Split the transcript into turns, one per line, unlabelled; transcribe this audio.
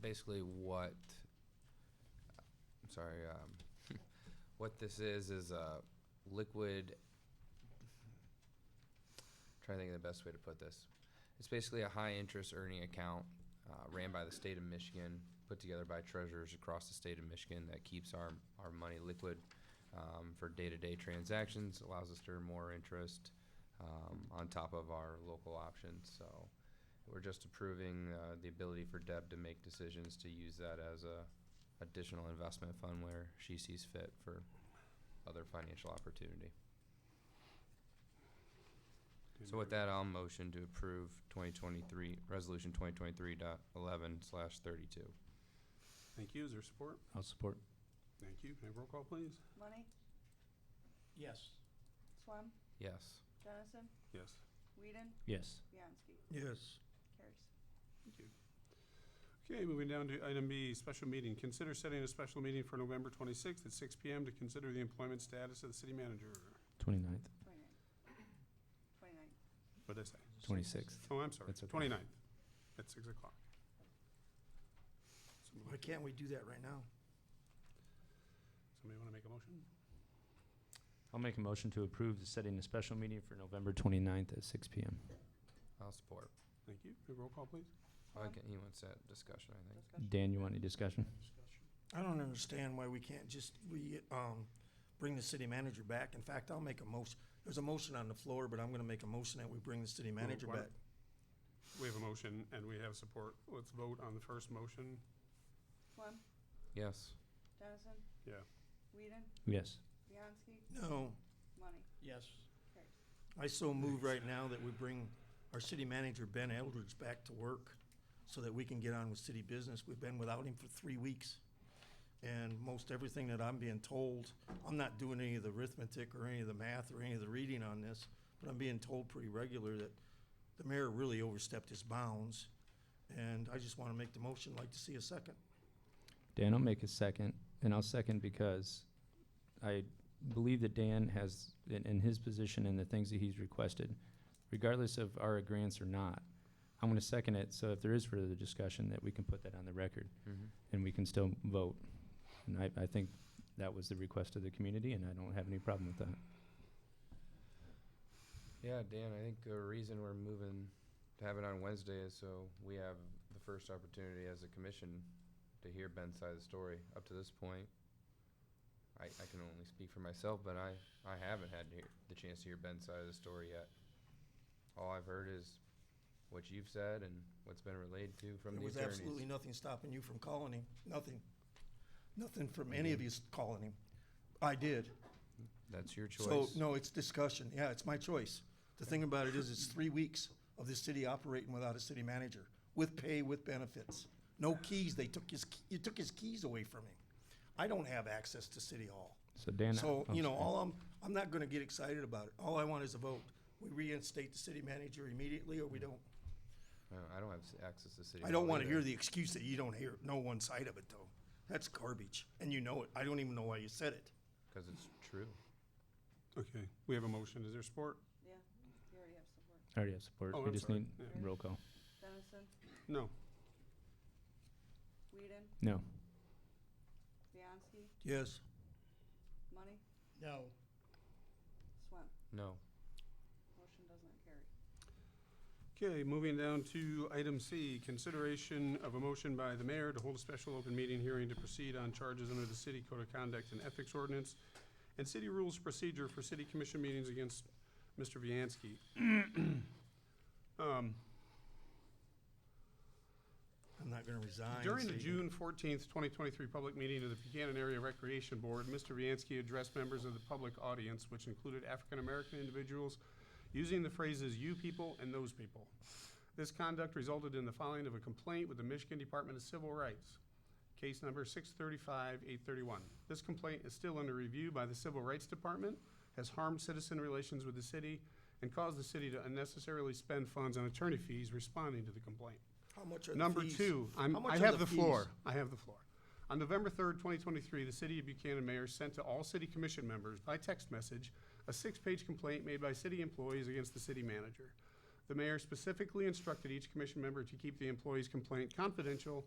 basically what, I'm sorry, um, what this is, is a liquid, trying to think of the best way to put this. It's basically a high-interest earning account, uh, ran by the state of Michigan, put together by treasurers across the state of Michigan that keeps our, our money liquid, um, for day-to-day transactions, allows us to earn more interest, um, on top of our local options, so. We're just approving uh, the ability for Deb to make decisions to use that as a additional investment fund where she sees fit for other financial opportunity. So with that, I'll motion to approve twenty twenty-three, resolution twenty twenty-three dot eleven slash thirty-two.
Thank you. Is there support?
I'll support.
Thank you. Can I have roll call, please?
Money,
Yes.
Swam,
Yes.
Dennison,
Yes.
Whedon,
Yes.
Bianski.
Yes.
Carries.
Thank you. Okay, moving down to item B, special meeting. Consider setting a special meeting for November 26th at 6 PM to consider the employment status of the city manager.
Twenty-ninth,
Twenty-nine. Twenty-nine.
What did I say?
twenty-sixth.
Oh, I'm sorry,
That's okay.
29th at 6 o'clock.
Why
Somebody
can't we do that right now?
want to make a motion?
I'll make a motion to approve the setting a special meeting for November twenty-ninth at six PM.
I'll support.
Thank you. Can I have Roll call, please.
I can, he wants that discussion, I think.
Discussion.
Dan, you want any discussion?
I don't understand why we can't just, we, um, bring the city manager back. In fact, I'll make a motion, there's a motion on the floor, but I'm gonna make a motion that we bring the city manager
why-
back.
We have a motion and we have support. Let's vote on the first motion.
Swam,
Yes.
Dennison,
Yeah.
Whedon,
Yes.
Bianski,
No,
Money,
Yes.
carries.
I so move right now that we bring our city manager, Ben Eldridge, back to work so that we can get on with city business. We've been without him for three weeks. And most everything that I'm being told, I'm not doing any of the arithmetic or any of the math or any of the reading on this, but I'm being told pretty regular that the mayor really overstepped his bounds. And I just want to make the motion, like to see a second.
Dan, I'll make a second, and I'll second because I believe that Dan has, in, in his position and the things that he's requested, regardless of our agreeance or not, I'm gonna second it, so if there is further discussion, that we can put that on the record,
Mm-hmm.
and we can still vote. And I, I think that was the request of the community, and I don't have any problem with that.
Yeah, Dan, I think the reason we're moving to have it on Wednesday is so we have the first opportunity as a commission to hear Ben's side of the story. Up to this point, I, I can only speak for myself, but I, I haven't had to hear- the chance to hear Ben's side of the story yet. All I've heard is what you've said and what's been relayed to from
There
the
was absolutely
attorneys.
nothing stopping you from calling him, nothing. Nothing from any of
Mm-hmm.
you calling him. I did.
That's your
So,
choice.
no, it's discussion. Yeah, it's my choice. The thing about it is, it's three weeks of the city operating without a city manager, with pay, with benefits. No keys. They took his, you took his keys away from him. I don't have access to City Hall.
So Dan.
So,
oh,
you know,
sorry.
all I'm, I'm not gonna get excited about it. All I want is a vote. We reinstate the city manager immediately, or we don't.
No, Uh, I don't have s- access to city.
I don't
hall
wanna
either.
hear the excuse that you don't hear, know one side of it, though. That's garbage, and you know it. I don't even know why you said it.
Cause it's true.
Okay, we have a motion. Is there support?
Yeah, you already have support.
I already have support.
Oh,
We
I'm
just
sorry.
need
Yeah.
roll call.
Dennison,
No.
Whedon,
No.
Bianski,
Yes.
Money,
No.
Swam.
No.
Motion does not carry.
Okay, moving down to item C, consideration of a motion by the mayor to hold a special open meeting hearing to proceed on charges under the city code of conduct and ethics ordinance and city rules of procedure for city commission meetings against Mr. Viancy. Um,
I'm not gonna resign.
During the
so you-
June fourteenth, twenty twenty-three public meeting of the Buchanan Area Recreation Board, Mr. Viancy addressed members of the public audience, which included African-American individuals, using the phrases "you people" and "those people." This conduct resulted in the filing of a complaint with the Michigan Department of Civil Rights, case number six thirty-five, eight thirty-one. This complaint is still under review by the Civil Rights Department, has harmed citizen relations with the city, and caused the city to unnecessarily spend funds on attorney fees responding to the complaint.
How much are the
Number
fees?
two, I'm,
How much
I
are
have the
fees?
floor. I have the floor. On November third, twenty twenty-three, the city of Buchanan mayor sent to all city commission members by text message a six-page complaint made by city employees against the city manager. The mayor specifically instructed each commission member to keep the employee's complaint confidential